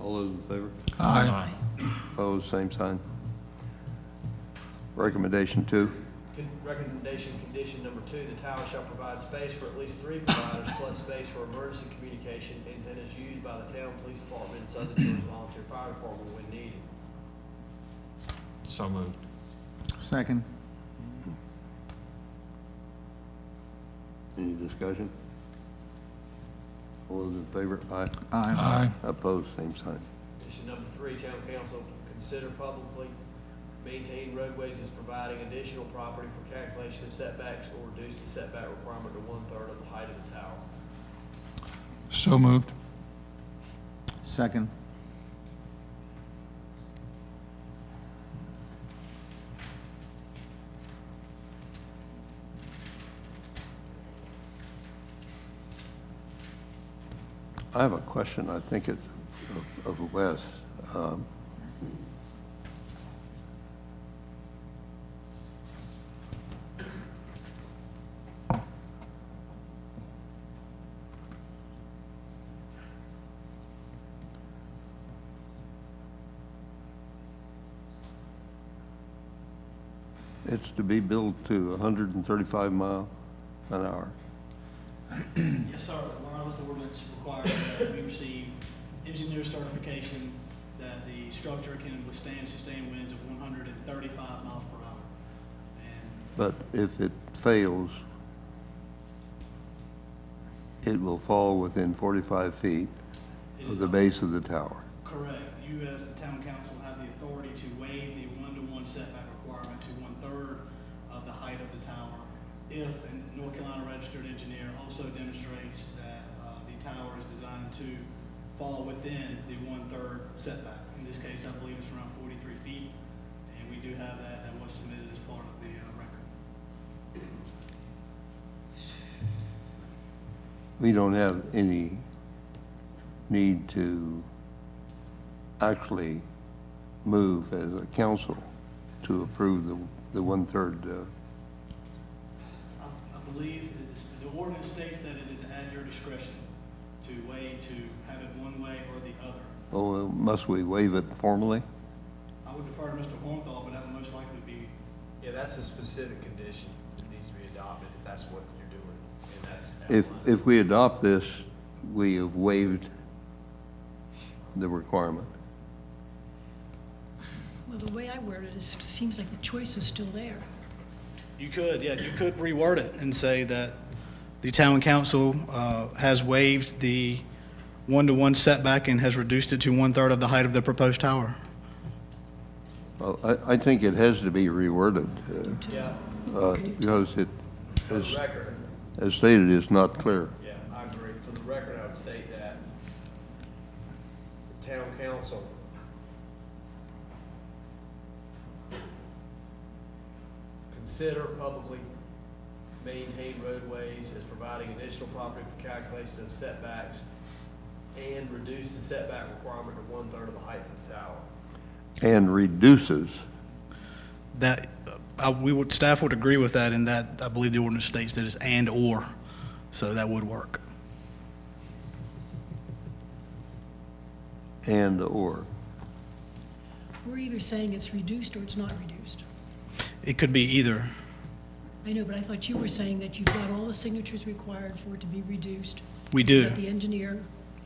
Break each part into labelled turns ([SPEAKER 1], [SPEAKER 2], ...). [SPEAKER 1] All those in favor?
[SPEAKER 2] Aye.
[SPEAKER 1] Opposed, same sign. Recommendation two.
[SPEAKER 3] Con- Recommendation, condition number two, the tower shall provide space for at least three providers plus space for emergency communication antennas used by the town police department and Southern Georgia Volunteer Fire Department when needed.
[SPEAKER 2] So moved.
[SPEAKER 4] Second.
[SPEAKER 1] Any discussion? All those in favor? Aye.
[SPEAKER 4] Aye.
[SPEAKER 2] Aye.
[SPEAKER 1] Opposed, same sign.
[SPEAKER 3] Condition number three, town council consider publicly maintain roadways as providing additional property for calculation of setbacks or reduce the setback requirement to one-third of the height of the tower.
[SPEAKER 2] So moved.
[SPEAKER 4] Second.
[SPEAKER 1] I have a question, I think it's of of Wes. Um, It's to be built to 135 mile an hour.
[SPEAKER 5] Yes, sir, the wireless ordinance requires that we receive engineer certification that the structure can withstand sustained winds of one hundred and thirty-five miles per hour. And
[SPEAKER 1] But if it fails, it will fall within 45 feet
[SPEAKER 5] it
[SPEAKER 1] of
[SPEAKER 5] is
[SPEAKER 1] the base of the tower.
[SPEAKER 5] Correct, you as the town council have the authority to waive the one-to-one setback requirement to one-third of the height of the tower if a North Carolina registered engineer also demonstrates that, uh, the tower is designed to fall within the one-third setback. In this case, I believe it's around forty-three feet, and we do have that, that was submitted as part of the, uh, record.
[SPEAKER 1] We don't have any need to actually move as a council to approve the, the one-third, uh,
[SPEAKER 5] I I believe it's- the ordinance states that it is at your discretion to weigh, to have it one way or the other.
[SPEAKER 1] oh, must we waive it formally?
[SPEAKER 5] I would defer to Mr. Hornthal, but that would most likely be,
[SPEAKER 3] Yeah, that's a specific condition that needs to be adopted if that's what you're doing, and that's.
[SPEAKER 1] If, if we adopt this, we have waived the requirement.
[SPEAKER 6] Well, the way I word it is, it seems like the choice is still there.
[SPEAKER 5] you could, yeah, you could reword it and say that the town council uh, has waived the one-to-one setback and has reduced it to one-third of the height of the proposed tower.
[SPEAKER 1] Well, I, I think it has to be reworded, uh,
[SPEAKER 3] Yeah,
[SPEAKER 1] uh, because it,
[SPEAKER 3] for
[SPEAKER 1] as,
[SPEAKER 3] the record,
[SPEAKER 1] as stated, is not clear.
[SPEAKER 3] yeah, I agree. For the record, I would state that the town council consider publicly maintain roadways as providing additional property for calculation of setbacks and reduce the setback requirement to one-third of the height of the tower.
[SPEAKER 1] And reduces,
[SPEAKER 5] That, uh, I- we would, staff would agree with that, and that, I believe the ordinance states that it's and/or, so that would work.
[SPEAKER 1] and/or.
[SPEAKER 6] We're either saying it's reduced or it's not reduced.
[SPEAKER 5] It could be either.
[SPEAKER 6] I know, but I thought you were saying that you've got all the signatures required for it to be reduced.
[SPEAKER 5] We do.
[SPEAKER 6] That the engineer,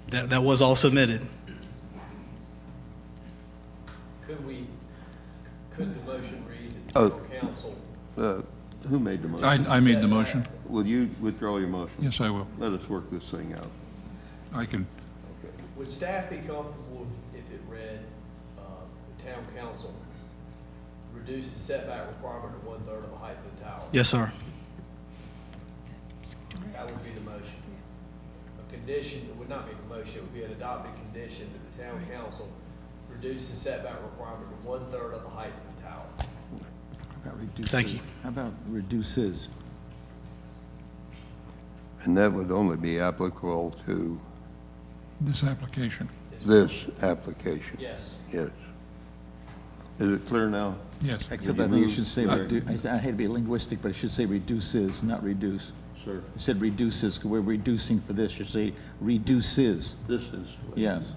[SPEAKER 5] That, that was all submitted.
[SPEAKER 3] Could we, could the motion read that
[SPEAKER 1] Oh.
[SPEAKER 3] the town council?
[SPEAKER 1] Uh, Who made the
[SPEAKER 2] I,
[SPEAKER 1] motion?
[SPEAKER 2] I made the motion.
[SPEAKER 1] Will you withdraw your motion?
[SPEAKER 2] Yes, I will.
[SPEAKER 1] Let us work this thing out.
[SPEAKER 2] I can,
[SPEAKER 3] Would staff be comfortable if if it read, uh, the town council reduce the setback requirement to one-third of the height of the tower?
[SPEAKER 5] Yes, sir.
[SPEAKER 6] that's
[SPEAKER 3] That
[SPEAKER 6] correct.
[SPEAKER 3] would be the motion. A condition, it would not be the motion, it would be an adopted condition that the town council reduce the setback requirement to one-third of the height of the tower.
[SPEAKER 5] Thank you.
[SPEAKER 4] How about reduces?
[SPEAKER 1] And that would only be applicable to
[SPEAKER 2] this application,
[SPEAKER 1] this application.
[SPEAKER 3] Yes.
[SPEAKER 1] Yes. Is it clear now?
[SPEAKER 2] yes.
[SPEAKER 7] Except
[SPEAKER 1] Would
[SPEAKER 7] I
[SPEAKER 1] you
[SPEAKER 7] think you
[SPEAKER 1] move-
[SPEAKER 7] should say, redu- I said- I hate to be linguistic, but it should say reduces, not reduce.
[SPEAKER 1] Sir.
[SPEAKER 7] It said reduces, 'cause we're reducing for this, should say reduces,
[SPEAKER 1] This is.
[SPEAKER 7] yes.